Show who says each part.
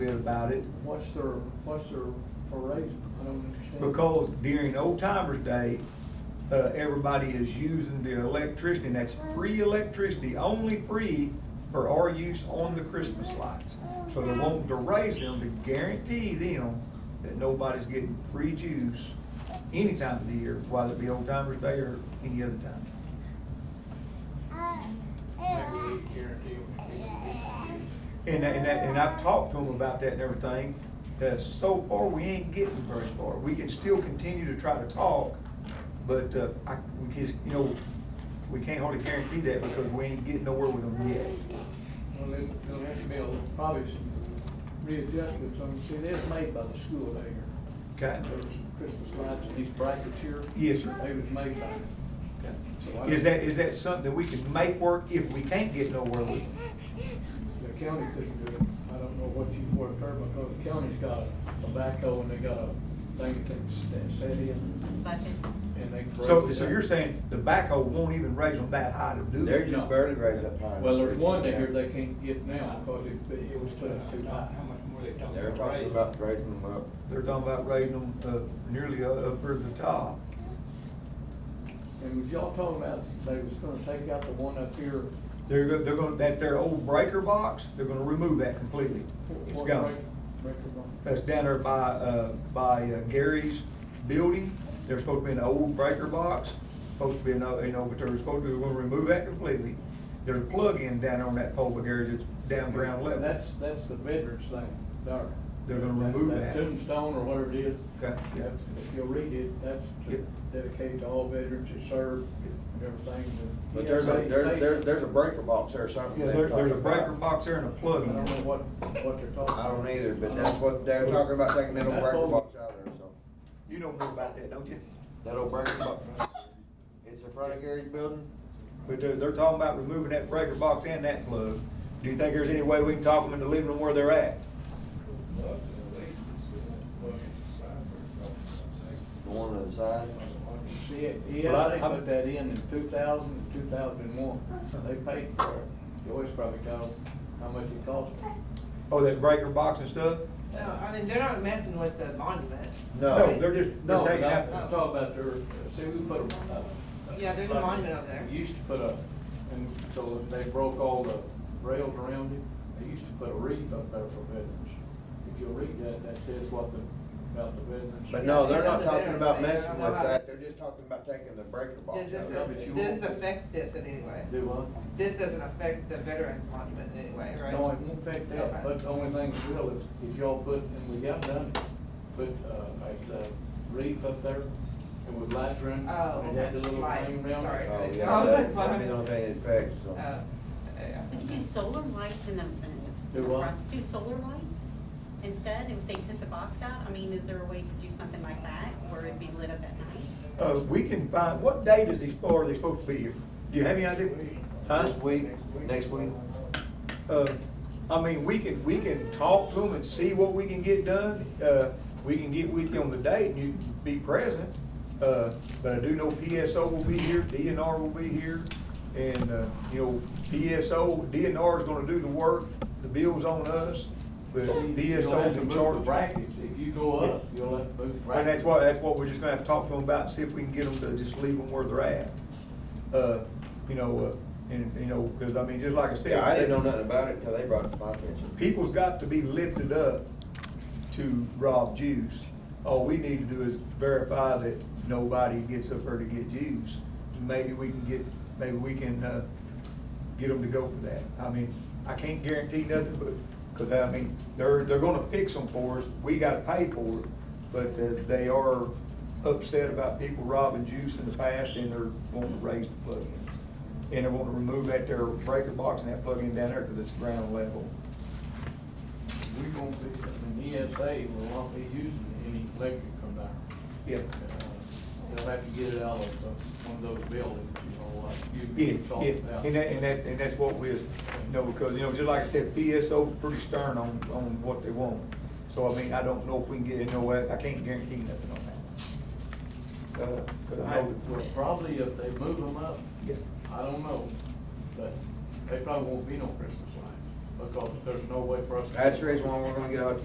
Speaker 1: bit about it,
Speaker 2: What's their, what's their, for raise? I don't understand.
Speaker 1: because during Old Timers Day, uh, everybody is using the electricity, and that's free electricity, only free for our use on the Christmas lights. So they want to raise them to guarantee them that nobody's getting free juice any time of the year, whether it be Old Timers Day or any other time.
Speaker 3: Maybe they guarantee we can get it.
Speaker 1: And, and, and I've talked to them about that and everything, that so far, we ain't getting very far. We can still continue to try to talk, but, uh, I, we just, you know, we can't hardly guarantee that because we ain't getting nowhere with them yet.
Speaker 2: Well, it- there'll have to be a- probably some readjustments on, see, that's made by the school there.
Speaker 1: Okay?
Speaker 2: There was some Christmas lights in these brackets here.
Speaker 1: Yes, sir.
Speaker 2: They was made by, so I-
Speaker 1: Okay. Is that, is that something that we can make work if we can't get nowhere with? it?
Speaker 2: the county couldn't do it. I don't know what you worked there, because the county's got a backhoe and they got a thing that's, that's set in and they. break
Speaker 1: So,
Speaker 2: it
Speaker 1: so
Speaker 2: down.
Speaker 1: you're saying the backhoe won't even raise them that high to do
Speaker 4: They're
Speaker 1: it?
Speaker 2: No.
Speaker 4: just barely raised up high.
Speaker 2: Well, there's one they hear they can't get now because it, it was put up too high.
Speaker 3: How much more they talking
Speaker 4: They're
Speaker 3: about
Speaker 4: talking
Speaker 3: raising?
Speaker 4: about raising them up.
Speaker 1: They're talking about raising them, uh, nearly up over the top.
Speaker 2: And was y'all talking about they was gonna take out the one up here?
Speaker 1: They're, go- they're gonna, that their old breaker box, they're gonna remove that completely. It's
Speaker 2: for-
Speaker 1: gone.
Speaker 2: record one?
Speaker 1: That's down there by, uh, by uh, Gary's building. There's supposed to be an old breaker box, supposed to be, an o- you know, but they're supposed to, they're gonna remove that completely. There's a plug-in down there on that pole by Gary's, it's down ground level.
Speaker 2: That's, that's the veterans thing, there.
Speaker 1: They're gonna remove that.
Speaker 2: Tombstone or whatever it is.
Speaker 1: Okay, yeah.
Speaker 2: that's- If you read it, that's
Speaker 1: Yeah.
Speaker 2: to dedicate to all veterans who served and everything. to-
Speaker 4: But there's a,
Speaker 2: They-
Speaker 4: there's,
Speaker 2: they-
Speaker 4: there's, there's a breaker box there or something.
Speaker 1: Yeah,
Speaker 4: they're
Speaker 1: there, there's a
Speaker 4: talking about.
Speaker 1: breaker box there and a
Speaker 2: I don't
Speaker 1: plug-in.
Speaker 2: know what, what they're talking.
Speaker 4: I don't either,
Speaker 2: I
Speaker 4: but
Speaker 2: don't-
Speaker 4: that's what they're talking about, taking that old
Speaker 2: Uh-huh. That
Speaker 4: breaker
Speaker 2: old-
Speaker 4: box out of there, so.
Speaker 1: You know more about that, don't you?
Speaker 4: That old breaker box, it's in front of Gary's building?
Speaker 1: But they're, they're talking about removing that breaker box and that plug. Do you think there's any way we can talk them into leaving them where they're at?
Speaker 4: The one on the side?
Speaker 2: See,
Speaker 1: Well, I-
Speaker 2: ESA
Speaker 1: I'm-
Speaker 2: put that in in 2000 and 2001. they paid for it. Joyce probably told how much it cost.
Speaker 1: Oh, that breaker box and stuff?
Speaker 5: No, Uh, I mean, they're not messing with the monument.
Speaker 1: No, they're just, they're
Speaker 2: No,
Speaker 1: taking
Speaker 2: no,
Speaker 1: out.
Speaker 2: I'm talking about their, uh, see, we put a. a-
Speaker 5: Yeah, there's a monument over there.
Speaker 2: They Used to put a, and so they broke all the rails around it, they used to put a wreath up there for veterans. If you read that, that says what the, about the veterans.
Speaker 4: But no, they're not
Speaker 5: Yeah, they're
Speaker 4: talking about
Speaker 5: there, they're not
Speaker 4: messing with
Speaker 5: about
Speaker 4: that,
Speaker 5: this.
Speaker 4: they're just talking about taking the breaker box
Speaker 5: Does this,
Speaker 4: out of
Speaker 2: but
Speaker 4: it.
Speaker 2: you
Speaker 5: this
Speaker 2: won't-
Speaker 5: affect this in any way?
Speaker 2: Do what?
Speaker 5: This doesn't affect the veterans monument in any way, right?
Speaker 2: No, it won't affect that, but the only thing that will is, is y'all put, and we got done, it, put, uh, like, uh, wreath up there, and with lights around,
Speaker 5: Oh,
Speaker 2: and it had the little
Speaker 5: lights,
Speaker 2: thing around.
Speaker 5: sorry.
Speaker 4: Oh,
Speaker 5: I
Speaker 4: yeah,
Speaker 5: was like,
Speaker 4: that- that'd
Speaker 5: why?
Speaker 4: be the only thing it
Speaker 5: Uh,
Speaker 4: affects, so.
Speaker 5: yeah.
Speaker 6: We could do solar lights in the.
Speaker 2: Do what?
Speaker 6: Do solar lights instead, if they took the box out, I mean, is there a way to do something like that, where it'd be lit up at night?
Speaker 1: Uh, we can find, what date is he, or are they supposed to be here? Do you have any idea? Huh?
Speaker 4: This week, next week,
Speaker 1: Uh, I mean, we can, we can talk to them and see what we can get done. Uh, we can get with you on the date and you can be present. Uh, but I do know PSO will be here, DNR will be here. And, uh, you know, PSO, DNR is gonna do the work, the bill's on us, but
Speaker 2: You'll have
Speaker 1: DSO's
Speaker 2: to
Speaker 1: in
Speaker 2: move the
Speaker 1: charge.
Speaker 2: Brackets, if you go up, you'll have to move the
Speaker 1: And
Speaker 2: brackets.
Speaker 1: that's why, that's what we're just gonna have to talk to them about, and see if we can get them to just leave them where they're at. Uh, you know, uh, and, you know, cause I mean, just like I said.
Speaker 4: yeah, I didn't know nothing about it until they brought it to my attention.
Speaker 1: People's got to be lifted up to rob juice. All we need to do is verify that nobody gets up there to get juice. Maybe we can get, maybe we can, uh, get them to go for that. I mean, I can't guarantee nothing, but, cause I mean, they're, they're gonna fix them for us, we gotta pay for it. But, uh, they are upset about people robbing juice in the past and they're wanting to raise the plugins. And they want to remove that there breaker box and that plug-in down there because it's ground level.
Speaker 2: We gonna be, I mean, ESA will not be using any electric from there.
Speaker 1: Yeah.
Speaker 2: Uh, They'll have to get it out of uh, one of those buildings, you know, like you.
Speaker 1: Yeah,
Speaker 2: you talked
Speaker 1: yeah,
Speaker 2: about.
Speaker 1: and that, and that, and that's what we, you know, because, you know, just like I said, PSO's pretty stern on, on what they want. So, I mean, I don't know if we can get, you know, I I can't guarantee nothing on that. Uh, 'cause I
Speaker 2: I-
Speaker 1: know
Speaker 2: well,
Speaker 1: that-
Speaker 2: Probably if they move them up,
Speaker 1: Yeah.
Speaker 2: I don't know, but they probably won't be no Christmas lights.
Speaker 7: because there's no way for us. to-
Speaker 2: That's the reason why we're gonna get a